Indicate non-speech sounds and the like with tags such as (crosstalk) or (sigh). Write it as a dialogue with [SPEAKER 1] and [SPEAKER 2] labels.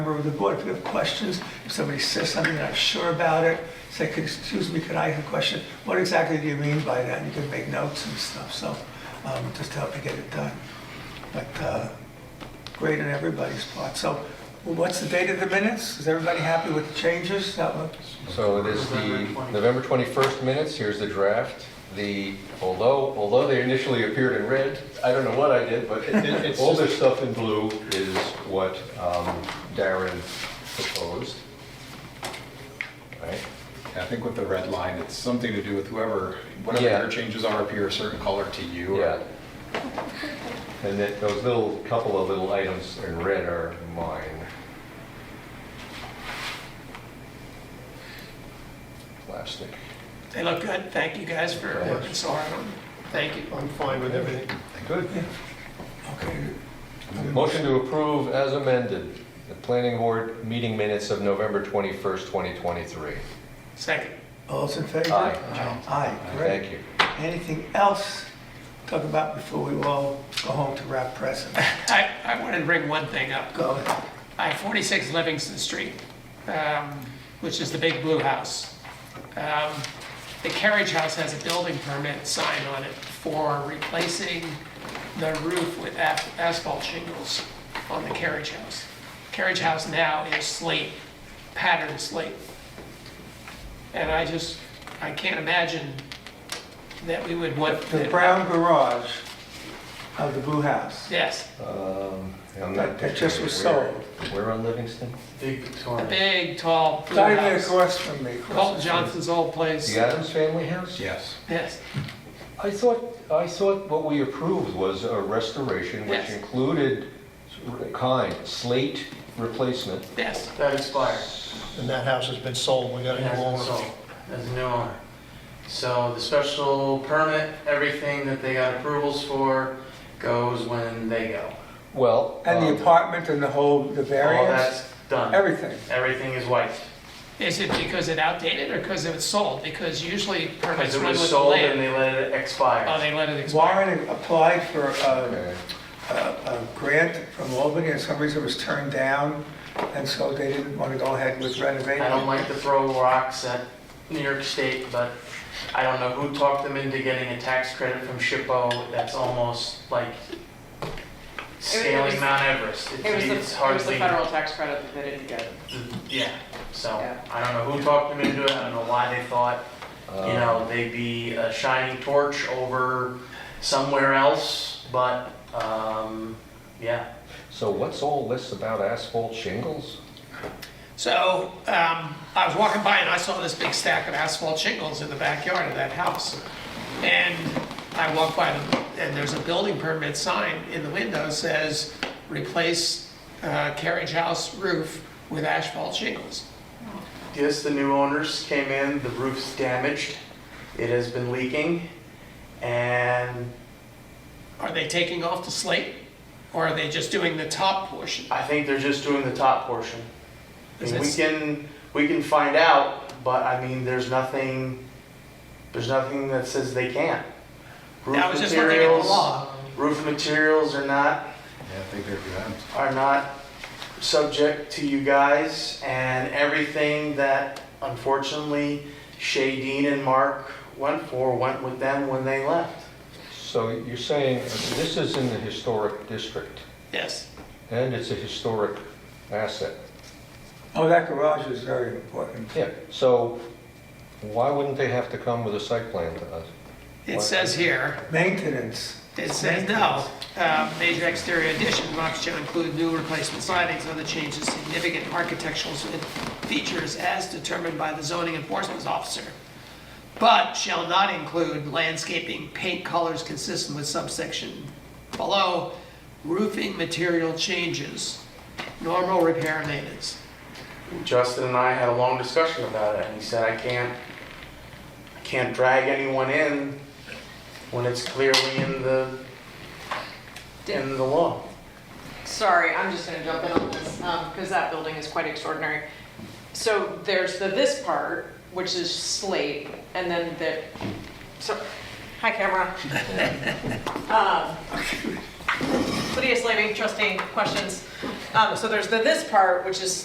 [SPEAKER 1] of the board, if you have questions, if somebody says something and I'm sure about it, say, "Could- excuse me, could I have a question? What exactly do you mean by that? You can make notes and stuff, so um, just to help you get it done. But uh, great on everybody's part. So what's the date of the minutes? Is everybody happy with the changes? Is That what?
[SPEAKER 2] So it is the November 21st minutes, here's the draft. The, although, although they initially appeared in red, I don't know what I did, but
[SPEAKER 3] It- it's
[SPEAKER 2] all
[SPEAKER 3] just-
[SPEAKER 2] this stuff in blue is what um, Darren proposed. Right?
[SPEAKER 3] I think with the red line, it's something to do with whoever, whatever
[SPEAKER 2] Yeah.
[SPEAKER 3] your changes are appear a certain color to you. or-
[SPEAKER 2] Yeah. And that, those little, couple of little items in red are mine. Plastic.
[SPEAKER 4] They look good. Thank you guys for working so hard on them. Thank you.
[SPEAKER 5] I'm fine with everything.
[SPEAKER 2] Good.
[SPEAKER 1] Okay,
[SPEAKER 2] Motion to approve as amended, the planning board meeting minutes of November 21st, 2023.
[SPEAKER 4] Second.
[SPEAKER 1] all those in favor?
[SPEAKER 2] Aye.
[SPEAKER 1] Aye, great.
[SPEAKER 2] Thank you.
[SPEAKER 1] Anything else to talk about before we all go home to wrap presents?
[SPEAKER 4] I, I wanted to bring one thing up.
[SPEAKER 1] Go ahead.
[SPEAKER 4] I 46 Livingston Street, um, which is the big blue house. Um, The carriage house has a building permit sign on it for replacing the roof with as- asphalt shingles on the carriage house. Carriage house now is slate, patterned slate. And I just, I can't imagine that we would want.
[SPEAKER 1] The brown garage of the Blue House.
[SPEAKER 4] Yes,
[SPEAKER 2] Um, I'm
[SPEAKER 1] That
[SPEAKER 2] not
[SPEAKER 1] that just was
[SPEAKER 2] picturing it.
[SPEAKER 1] sold.
[SPEAKER 2] Where where on Livingston?
[SPEAKER 5] Big
[SPEAKER 4] a
[SPEAKER 5] Victoria.
[SPEAKER 4] big, tall blue
[SPEAKER 1] Not even
[SPEAKER 4] house.
[SPEAKER 1] across from me. across the
[SPEAKER 4] Colton
[SPEAKER 1] street.
[SPEAKER 4] Johnson's old place.
[SPEAKER 2] The Adams family house?
[SPEAKER 3] Yes.
[SPEAKER 4] Yes.
[SPEAKER 2] I thought, I thought what we approved was a restoration which
[SPEAKER 4] Yes.
[SPEAKER 2] included kind, slate replacement.
[SPEAKER 4] Yes,
[SPEAKER 5] That expired.
[SPEAKER 6] And that house has been sold, we got a
[SPEAKER 5] It
[SPEAKER 6] new
[SPEAKER 5] hasn't
[SPEAKER 6] owner.
[SPEAKER 5] sold. As a new owner. So the special permit, everything that they got approvals for goes when they go.
[SPEAKER 2] Well,
[SPEAKER 1] And the
[SPEAKER 2] um,
[SPEAKER 1] apartment and the whole, the
[SPEAKER 5] All
[SPEAKER 1] variance,
[SPEAKER 5] that's done.
[SPEAKER 1] everything.
[SPEAKER 5] Everything is wiped.
[SPEAKER 4] Is it because it outdated or because it was sold? Because usually permits
[SPEAKER 5] Because it
[SPEAKER 4] run
[SPEAKER 5] was
[SPEAKER 4] with
[SPEAKER 5] Uh,
[SPEAKER 4] the
[SPEAKER 5] sold
[SPEAKER 4] land.
[SPEAKER 5] and they let it
[SPEAKER 4] Oh,
[SPEAKER 5] expire.
[SPEAKER 4] they let it expire.
[SPEAKER 1] Warren applied for a,
[SPEAKER 2] okay.
[SPEAKER 1] a, a grant from Albany and some reason it was turned down. And so they didn't want to go ahead with renovating.
[SPEAKER 5] I don't
[SPEAKER 1] it.
[SPEAKER 5] like to throw rocks at New York State, but I don't know who talked them into getting a tax credit from SHPO. That's almost like scaling Mount Everest. It's-
[SPEAKER 7] It was
[SPEAKER 5] It's
[SPEAKER 7] the, it was the
[SPEAKER 5] hardly.
[SPEAKER 7] federal tax credit that they didn't get.
[SPEAKER 5] (clears throat) Yeah, so,
[SPEAKER 7] Yeah.
[SPEAKER 5] I don't know who talked them into it, I don't know why they thought, you
[SPEAKER 4] Um.
[SPEAKER 5] know, they'd be a shining torch over somewhere else, but, um, yeah.
[SPEAKER 2] So what's all this about asphalt shingles?
[SPEAKER 4] So um, I was walking by and I saw this big stack of asphalt shingles in the backyard of that house. And I walked by them and there's a building permit sign in the window says, replace uh, carriage house roof with asphalt shingles.
[SPEAKER 5] Yes, the new owners came in, the roof's damaged, it has been leaking, and
[SPEAKER 4] Are they taking off the slate? Or are they just doing the top portion?
[SPEAKER 5] I think they're just doing the top portion. I
[SPEAKER 4] Is
[SPEAKER 5] mean, we
[SPEAKER 4] this-
[SPEAKER 5] can, we can find out, but I mean, there's nothing, there's nothing that says they can't. Roof
[SPEAKER 4] I was just looking at the
[SPEAKER 5] materials-
[SPEAKER 4] law.
[SPEAKER 5] Roof materials are not,
[SPEAKER 3] Yeah, I think they're good.
[SPEAKER 5] are not subject to you guys and everything that unfortunately Shay Dean and Mark went for went with them when they left.
[SPEAKER 2] So you're saying this is in the historic district,
[SPEAKER 4] Yes.
[SPEAKER 2] and it's a historic asset?
[SPEAKER 1] Oh, that garage is very important.
[SPEAKER 2] Yeah, so why wouldn't they have to come with a site plan to us?
[SPEAKER 4] It says here,
[SPEAKER 1] Maintenance.
[SPEAKER 4] It says no. Uh, Major exterior addition, box shall include new replacement sidings, other changes, significant architectural features as determined by the zoning enforcement officer, but shall not include landscaping, paint colors consistent with subsection below, roofing material changes, normal repair and maintenance.
[SPEAKER 5] Justin and I had a long discussion about it and he said, I can't, I can't drag anyone in when it's clearly in the, in the law.
[SPEAKER 7] Sorry, I'm just gonna jump in on this, um, cause that building is quite extraordinary. So there's the this part, which is slate, and then the, so, hi camera. Um, Lydia Slavy, trustee, questions. Um, so there's the this part, which is